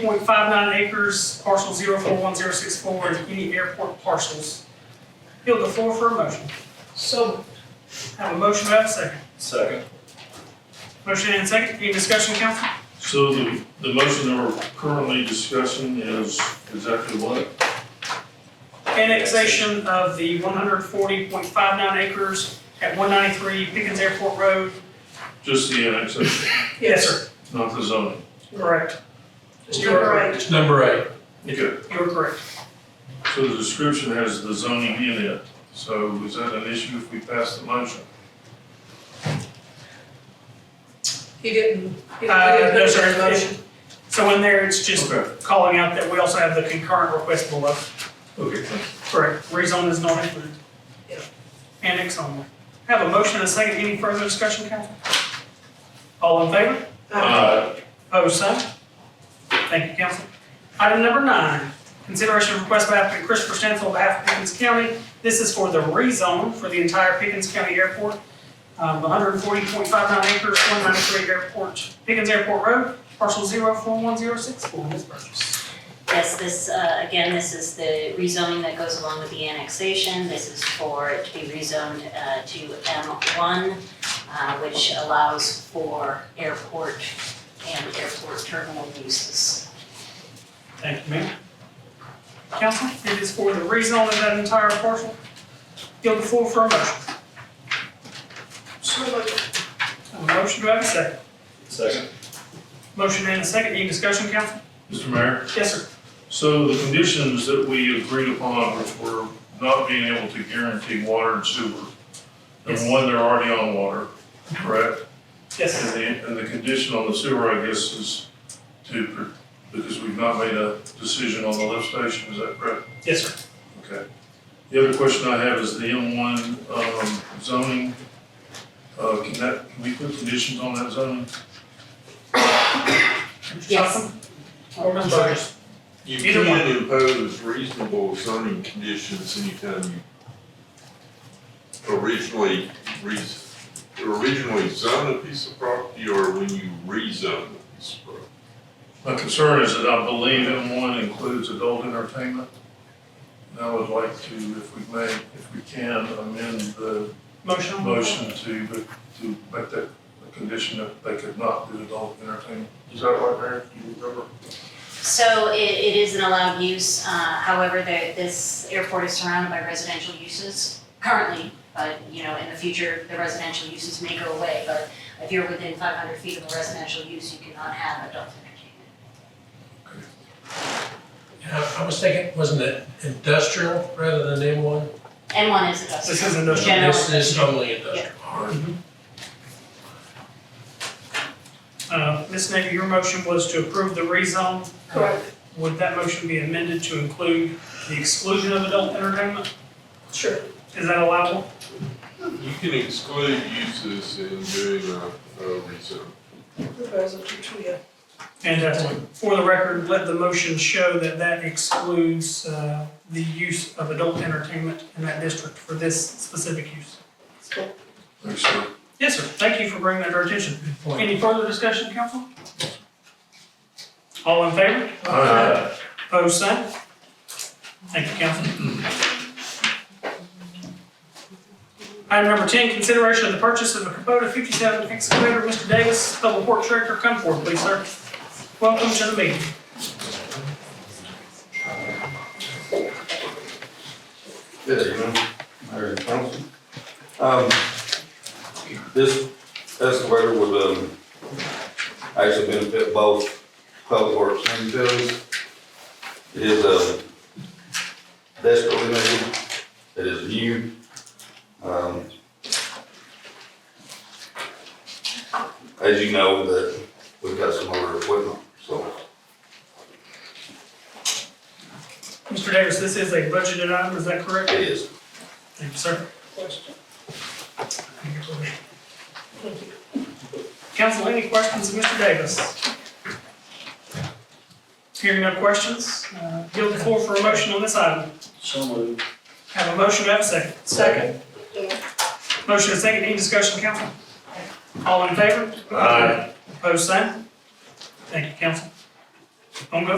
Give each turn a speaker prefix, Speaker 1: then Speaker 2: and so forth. Speaker 1: point five nine acres, parcel zero four one zero six four, and any airport parcels. Yield the floor for a motion.
Speaker 2: So.
Speaker 1: Have a motion, have a second.
Speaker 3: Second.
Speaker 1: Motion and second, any discussion, council?
Speaker 4: So the, the motion that we're currently discussing is exactly what?
Speaker 1: Annexation of the one hundred forty point five nine acres at one ninety-three Pickens Airport Road.
Speaker 4: Just the annexation,
Speaker 1: Yes, sir.
Speaker 4: not the zoning.
Speaker 1: Correct. You
Speaker 2: Number
Speaker 1: are,
Speaker 2: eight.
Speaker 5: It's number eight.
Speaker 4: Okay.
Speaker 1: you are correct.
Speaker 4: So the description has the zoning in it, so is that an issue if we pass the motion?
Speaker 2: He didn't. he didn't-
Speaker 1: Uh,
Speaker 2: he didn't
Speaker 1: no,
Speaker 2: put
Speaker 1: sir,
Speaker 2: it in the motion.
Speaker 1: So in there, it's just
Speaker 4: Okay.
Speaker 1: calling out that we also have the concurrent request below.
Speaker 4: Okay, thank you.
Speaker 1: Correct. Rezone is not included.
Speaker 2: Yeah.
Speaker 1: Annex only. Have a motion and a second. Any further discussion, council? All in favor?
Speaker 2: Uh,
Speaker 1: Opposed, same. Thank you, council. Item number nine, consideration of request by applicant Christopher Stansel on behalf of Pickens County. This is for the rezone for the entire Pickens County Airport. Um, 140.59 acres, 193 Airport, Pickens Airport Road, parcel 041064, Ms. Burgess.
Speaker 6: Yes, this, uh, again, this is the rezoning that goes along with the annexation. This is for it to be rezoned uh, to M1, uh, which allows for airport and airport terminal uses.
Speaker 1: Thank you, ma'am. Council, it is for the rezone of that entire parcel. Yield the floor for a motion.
Speaker 2: So moved.
Speaker 1: A motion, do I have a second?
Speaker 3: Second.
Speaker 1: Motion and a second. Any discussion, council?
Speaker 4: Mr. Mayor,
Speaker 1: Yes, sir.
Speaker 4: so the conditions that we agreed upon which were not being able to guarantee water and sewer.
Speaker 1: Yes.
Speaker 4: And one, they're already on water, correct?
Speaker 1: Yes,
Speaker 4: And
Speaker 1: sir.
Speaker 4: the, and the condition on the sewer, I guess, is to, pr- because we've not made a decision on the lift station, is that correct?
Speaker 1: Yes, sir.
Speaker 4: Okay. The other question I have is the M one, um, zoning. Uh, can that, can we put conditions on that zoning?
Speaker 1: Mr.
Speaker 6: Yes.
Speaker 1: Johnson Or Ms. Burgess?
Speaker 7: You
Speaker 1: Either one.
Speaker 7: can impose reasonable zoning conditions anytime you originally, re- originally zone a piece of property or when you rezone a piece of property.
Speaker 4: My concern is that I believe M one includes adult entertainment. And I would like to, if we may, if we can, amend the
Speaker 1: Motion? on the floor.
Speaker 4: motion to, to make that a condition that they could not do adult entertainment. Is that right, Mayor? Do you remember?
Speaker 6: So it, it is an allowed use, uh, however, the, this airport is surrounded by residential uses currently, but, you know, in the future, the residential uses may go away, but if you're within five hundred feet of a residential use, you cannot have adult entertainment.
Speaker 5: And I I was thinking, wasn't it industrial rather than M one?
Speaker 6: And one is industrial.
Speaker 1: This is industrial.
Speaker 6: General
Speaker 5: This is only industrial. All right.
Speaker 1: Uh, Ms. Navy, your motion was to approve the rezone.
Speaker 2: Correct,
Speaker 1: Would that motion be amended to include the exclusion of adult entertainment?
Speaker 2: sure.
Speaker 1: Is that allowable?
Speaker 7: You can exclude uses in doing a, a rezone.
Speaker 2: Proposal to Tria.
Speaker 1: Fantastic. uh, For the record, let the motion show that that excludes uh, the use of adult entertainment in that district for this specific use.
Speaker 2: So,
Speaker 4: Thanks, sir.
Speaker 1: Yes, sir. Thank you for bringing that to our attention.
Speaker 5: Good point.
Speaker 1: Any further discussion, council? All in favor?
Speaker 4: Aye.
Speaker 1: Opposed, same? Thank you, council. Item number 10, consideration of the purchase of a Kubota 57 excavator. Mr. Davis, Public Works Director, come forward, please, sir. Welcome to the meeting.
Speaker 8: Good evening, Mayor and Council. Um, This excavator would, um, actually benefit both public works and utilities. It is, um, desperately needed, it is new. Um, As you know, that we've got some other equipment, so
Speaker 1: Mr. Davis, this is a budgeted item, is that correct?
Speaker 8: it is.
Speaker 1: Thank you, sir.
Speaker 2: question. Thank you.
Speaker 1: Council, any questions of Mr. Davis? Hearing no questions, uh, yield the floor for a motion on this item.
Speaker 3: So moved.
Speaker 1: Have a motion, have a second.
Speaker 2: Second.
Speaker 1: Motion and second, any discussion, council? All in favor?
Speaker 4: Aye.
Speaker 1: Opposed, same? Thank you, council. On